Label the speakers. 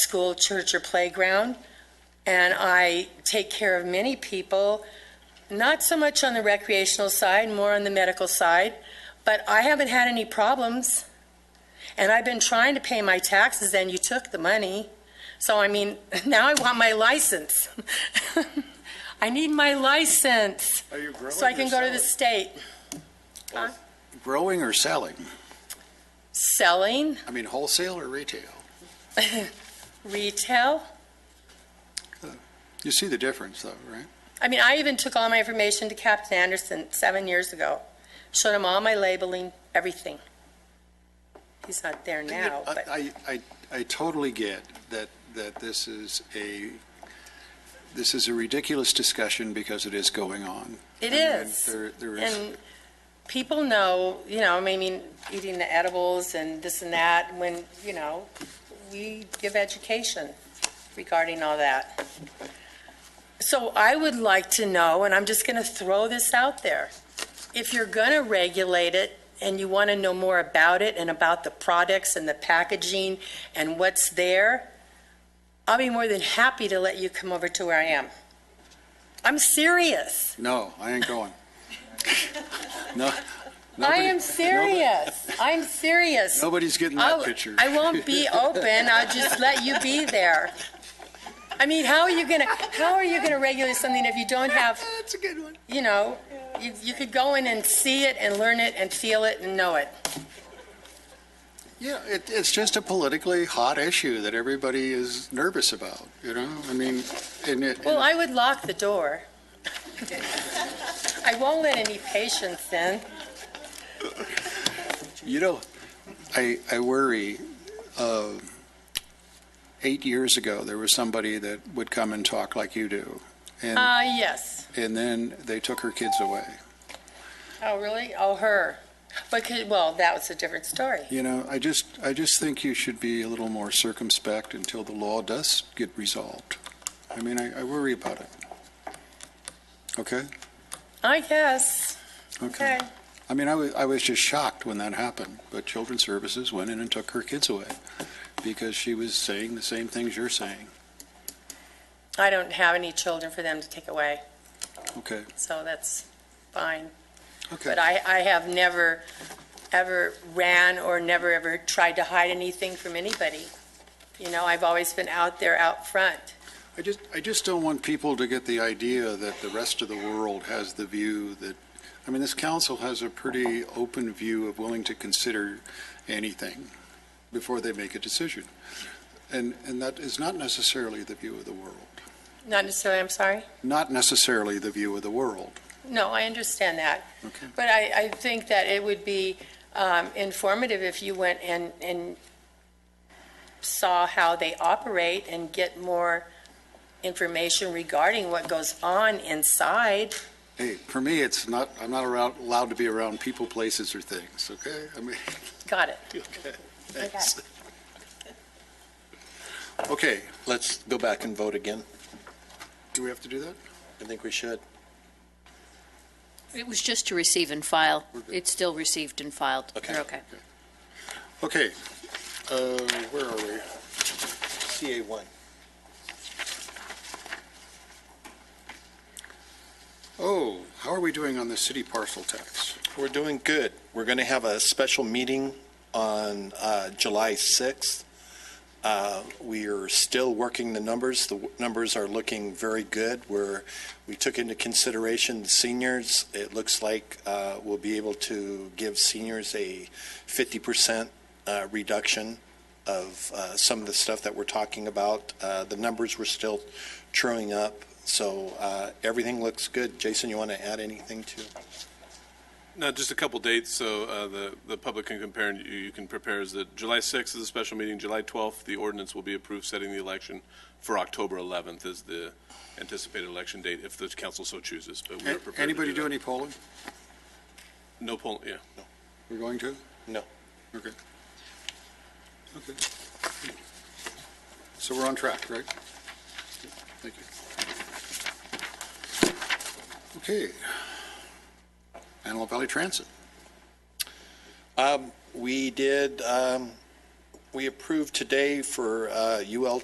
Speaker 1: school, church, or playground. And I take care of many people, not so much on the recreational side, more on the medical side. But I haven't had any problems. And I've been trying to pay my taxes, and you took the money. So, I mean, now I want my license. I need my license
Speaker 2: Are you growing
Speaker 1: so I can
Speaker 2: or
Speaker 1: go to the
Speaker 2: selling?
Speaker 1: state.
Speaker 2: Growing or selling?
Speaker 1: Selling,
Speaker 2: I mean wholesale or retail?
Speaker 1: retail.
Speaker 2: You see the difference though, right?
Speaker 1: I mean, I even took all my information to Captain Anderson seven years ago, showed him all my labeling, everything. He's not there now, but
Speaker 2: I, I, I- I totally get that, that this is a, this is a ridiculous discussion because it is going on.
Speaker 1: it
Speaker 2: And- and
Speaker 1: is.
Speaker 2: There, there is.
Speaker 1: And people know, you know, I mean, eating the edibles and this and that, when, you know, we give education regarding all that. So I would like to know, and I'm just going to throw this out there, if you're going to regulate it and you want to know more about it and about the products and the packaging and what's there, I'll be more than happy to let you come over to where I am. I'm serious.
Speaker 2: No, I ain't going. No.
Speaker 1: I
Speaker 2: nobody-
Speaker 1: am serious. I'm serious.
Speaker 2: Nobody's getting
Speaker 1: I'll-
Speaker 2: that picture.
Speaker 1: Oh, I won't be open. I'll just let you be there. I mean, how are you gonna, how are you gonna regulate something if you don't have,
Speaker 2: That's a good one.
Speaker 1: you know, you, you could go in and see it and learn it and feel it and know it.
Speaker 2: Yeah, it, it's just a politically hot issue that everybody is nervous about, you know? I mean, and it.
Speaker 1: Well, I would lock the door. I won't let any patients in.
Speaker 2: You know, I, I worry, uh, eight years ago, there was somebody that would come and talk like you do. And,
Speaker 1: Uh, yes.
Speaker 2: and then they took her kids away.
Speaker 1: Oh, really? Oh, her. But, could- well, that was a different story.
Speaker 2: You know, I just, I just think you should be a little more circumspect until the law does get resolved. I mean, I, I worry about it. Okay?
Speaker 1: I guess. Okay.
Speaker 2: I mean, I was, I was just shocked when that happened, but Children's Services went in and took her kids away because she was saying the same things you're saying.
Speaker 1: I don't have any children for them to take away.
Speaker 2: Okay,
Speaker 1: so that's fine.
Speaker 2: okay.
Speaker 1: But I, I have never, ever ran or never, ever tried to hide anything from anybody. You know, I've always been out there, out front.
Speaker 2: I just, I just don't want people to get the idea that the rest of the world has the view that, I mean, this council has a pretty open view of willing to consider anything before they make a decision. And, and that is not necessarily the view of the world,
Speaker 1: Not necessarily, I'm sorry?
Speaker 2: not necessarily the view of the world.
Speaker 1: No, I understand that.
Speaker 2: Okay.
Speaker 1: But I, I think that it would be um, informative if you went and, and saw how they operate and get more information regarding what goes on inside.
Speaker 2: Hey, for me, it's not, I'm not around, allowed to be around people, places, or things, okay? I mean,
Speaker 1: Got it?
Speaker 2: okay, thanks. Okay,
Speaker 3: Let's go back and vote again.
Speaker 2: do we have to do that?
Speaker 3: I think we should.
Speaker 4: It was just to receive and file. It's still received and filed.
Speaker 3: Okay.
Speaker 4: You're okay.
Speaker 2: Okay, uh, where are we?
Speaker 3: CA one.
Speaker 2: Oh, how are we doing on the city parcel tax?
Speaker 3: We're doing good. We're going to have a special meeting on uh, July 6th. Uh, We are still working the numbers. The w- numbers are looking very good. We're, we took into consideration the seniors. It looks like uh, we'll be able to give seniors a 50% uh, reduction of uh, some of the stuff that we're talking about. Uh, The numbers were still truing up, so uh, everything looks good. Jason, you want to add anything to?
Speaker 5: No, just a couple dates, so uh, the, the public can compare and you, you can prepare, is that July 6th is a special meeting, July 12th, the ordinance will be approved setting the election for October 11th is the anticipated election date, if the council so chooses, but we are prepared to
Speaker 2: Anybody do
Speaker 5: that.
Speaker 2: any polling?
Speaker 5: No poll, yeah.
Speaker 2: We're going to?
Speaker 3: No.
Speaker 2: Okay. Okay. So we're on track, right? Thank you. Okay. Antelope Valley Transit.
Speaker 3: Um, We did, um, we approved today for uh, UL